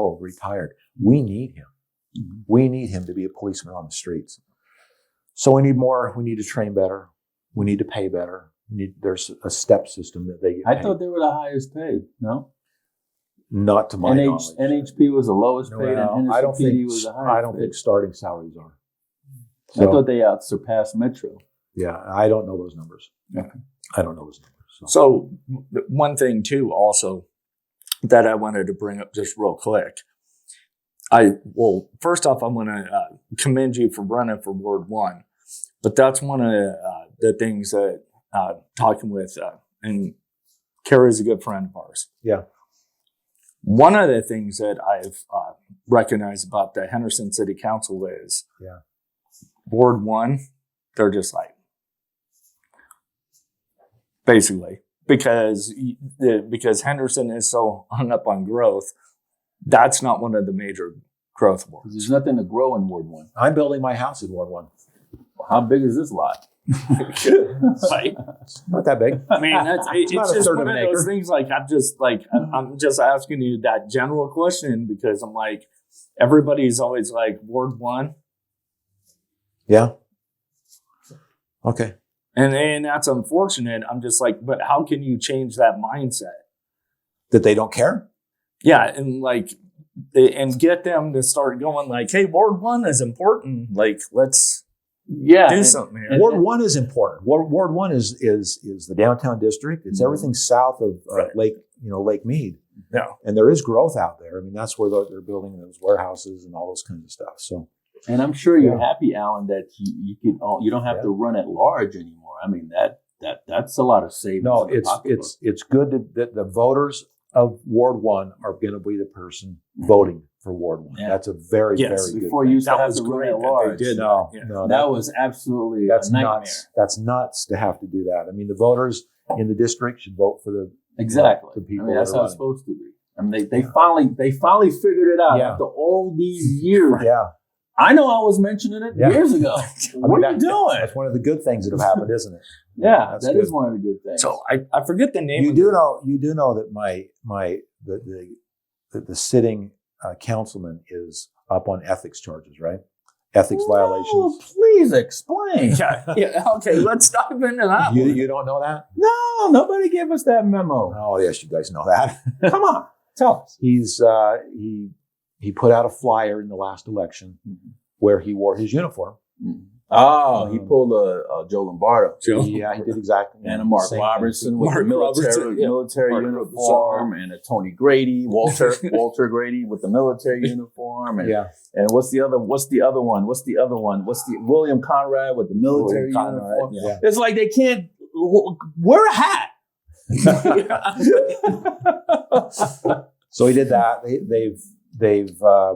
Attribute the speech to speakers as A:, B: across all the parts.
A: oh, retired. We need him.
B: Mhm.
A: We need him to be a policeman on the streets. So we need more. We need to train better. We need to pay better. We need, there's a step system that they get
B: I
A: paid.
B: thought they were the highest paid. No,
A: Not to my knowledge.
B: NH, NHP was the lowest
A: No,
B: paid, and Henderson
A: I don't
B: PD
A: think
B: was the highest.
A: I don't
B: paid.
A: think starting salaries are.
B: I
A: So,
B: thought they out surpassed Metro.
A: yeah, I don't know those numbers.
B: Okay.
A: I don't know those numbers. So.
C: So th- one thing too, also that I wanted to bring up just real quick. I well, first off, I'm going to uh, commend you for running for Ward One, but that's one of uh, the things that uh, talking with uh, and Carrie's a good friend of ours.
A: Yeah.
C: One of the things that I've uh, recognized about the Henderson City Council is,
A: Yeah.
C: Ward One, they're just like basically because y- the- because Henderson is so hung up on growth. That's not one of the major growth
B: Because
C: boards.
B: there's nothing to grow in Ward One.
A: I'm building my house in Ward One.
B: How big is this lot?
C: Like,
A: Not that big.
C: I mean, that's it-
A: It's
C: it's,
A: not a
C: just
A: third
C: one
A: of
C: of
A: an
C: those
A: acre.
C: things. Like I'm just like I'm, I'm just asking you that general question because I'm like everybody's always like Ward One,
A: Yeah. Okay.
C: and and that's unfortunate. I'm just like, but how can you change that mindset?
A: That they don't care?
C: yeah and like and get them to start going like hey ward one is important like let's
B: Yeah,
C: do
B: and-
C: something here.
B: and-
A: Ward one is important. Ward, Ward one is is is the downtown district. It's
B: Mm-hmm.
C: Mhm.
A: everything south of uh,
C: Right.
A: Lake, you know, Lake Mead.
C: Yeah.
A: And there is growth out there. I mean, that's where they're, they're building those warehouses and all those kinds of stuff. So
B: And I'm sure you're
A: Yeah.
B: happy, Alan, that you, you can all, you don't have
A: Yeah.
B: to run at large anymore. I mean that that that's a lot of savings.
A: no,
B: in the
A: it's
B: pocketbook.
A: it's it's good that- that the voters of Ward one are going to be the person voting for Ward one.
B: Mm-hmm. Yeah.
A: That's a very
C: Yes,
A: very good
B: before
A: thing.
B: you used to
C: That
B: have
C: was
B: to run
C: great
B: at
C: that they
B: large.
C: did
B: that,
A: no
C: Yeah.
A: no that,
B: was absolutely
A: that's
B: a nightmare.
A: nuts. That's nuts to have to do that. I mean, the voters in the district should vote for the
B: Exactly.
A: The people
B: I mean, that's
A: that are
B: how it's supposed to be. I mean, they, they finally they finally figured it out
A: Yeah.
B: after all these years.
A: yeah.
B: I know I was mentioning it
A: Yeah.
B: years ago. what are
A: that-
B: you doing?
A: That's one of the good things that have happened, isn't it?
B: Yeah,
A: that's
B: that is
A: good.
B: one of the good things.
C: so I, I forget the name
A: you
C: of
A: do
C: it.
A: know you do know that my my the the, the, the sitting uh, councilman is up on ethics charges, right? Ethics
B: No,
A: violations.
B: please explain.
C: yeah, yeah okay let's dive into that
A: You,
C: one.
A: you don't know that?
B: No, nobody gave us that memo.
A: Oh yes, you guys know that.
B: Come on, tell us.
A: He's uh, he he put out a flyer in the last election
B: Mm-hmm.
A: where he wore his uniform.
B: Oh, he
A: Mm-hmm. Um,
B: pulled a, a Joe Lombardo
C: Joe.
A: Yeah, he did exactly
B: and a
A: the
B: Mark
A: same thing.
B: Robertson with
C: Mark
B: the military
C: Robertson, yeah.
B: military
C: Mark
B: uniform, and a Tony Grady, Walter Walter Grady with the military uniform, and,
A: Yeah,
B: and what's the other? What's the other one? What's the other one? What's the William Conrad with the military
C: William Conrad,
B: uniform?
A: yeah.
B: It's like they can't w- wear a hat.
A: So he did that. They, they've they've uh,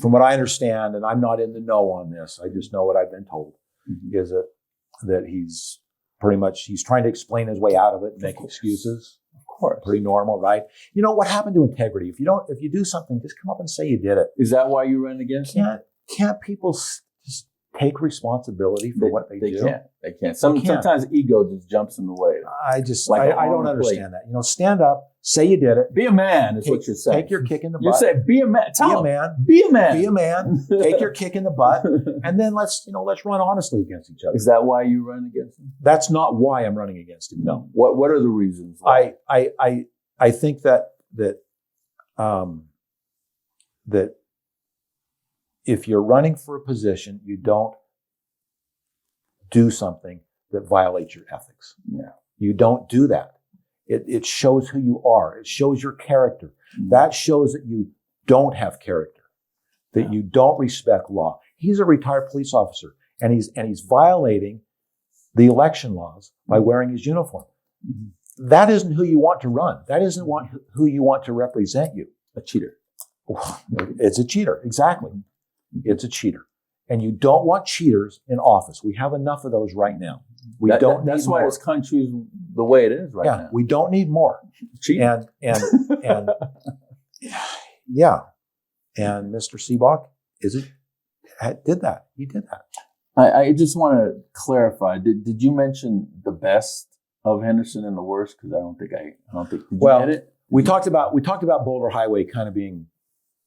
A: from what I understand, and I'm not in the know on this. I just know what I've been told
B: Mhm.
A: is that that he's pretty much he's trying to explain his way out of it and make excuses.
B: of course.
A: Pretty normal, right? You know what happened to integrity? If you don't, if you do something, just come up and say you did it.
B: Is that why you ran against him?
A: Can't can't people s- just take responsibility for what they,
B: They
A: do?
B: can't. They can't. Some,
A: They can't.
B: Sometimes ego just jumps in the way.
A: I just
B: Like a
A: I, I don't
B: long
A: understand that. You know, stand up, say you did it.
B: Be a man is
A: Take-
B: what you're saying.
A: Take your kick in the
B: you
A: butt.
B: say be a man.
A: be a
B: Tell him.
A: man.
B: Be a man.
A: Be a man. Take your kick in the butt. and then let's you know let's run honestly against each other.
B: Is that why you run against him?
A: That's not why I'm running against him. No,
B: What What are the reasons? why?
A: I I I I think that that um that if you're running for a position, you don't do something that violates your ethics.
B: Yeah.
A: You don't do that. It it shows who you are. It shows your character. That shows that you don't have character, that you don't respect law. He's a retired police officer and he's and he's violating the election laws by wearing his uniform.
B: Mhm.
A: That isn't who you want to run. That isn't want, who you want to represent you.
B: a cheater.
A: It's a cheater. Exactly. It's a cheater. And you don't want cheaters in office. We have enough of those right now. We
B: That-
A: don't
B: that-
A: need
B: that's why
A: more.
B: this country's the way it is right
A: yeah,
B: now.
A: we don't need more.
B: Cheating.
A: And and and yeah, and Mr. Seabock is it had- did that? He did that.
B: I, I just want to clarify. Did Did you mention the best of Henderson and the worst? Because I don't think I, I don't think. Did
A: Well,
B: you edit?
A: We talked about we talked about Boulder Highway kind of being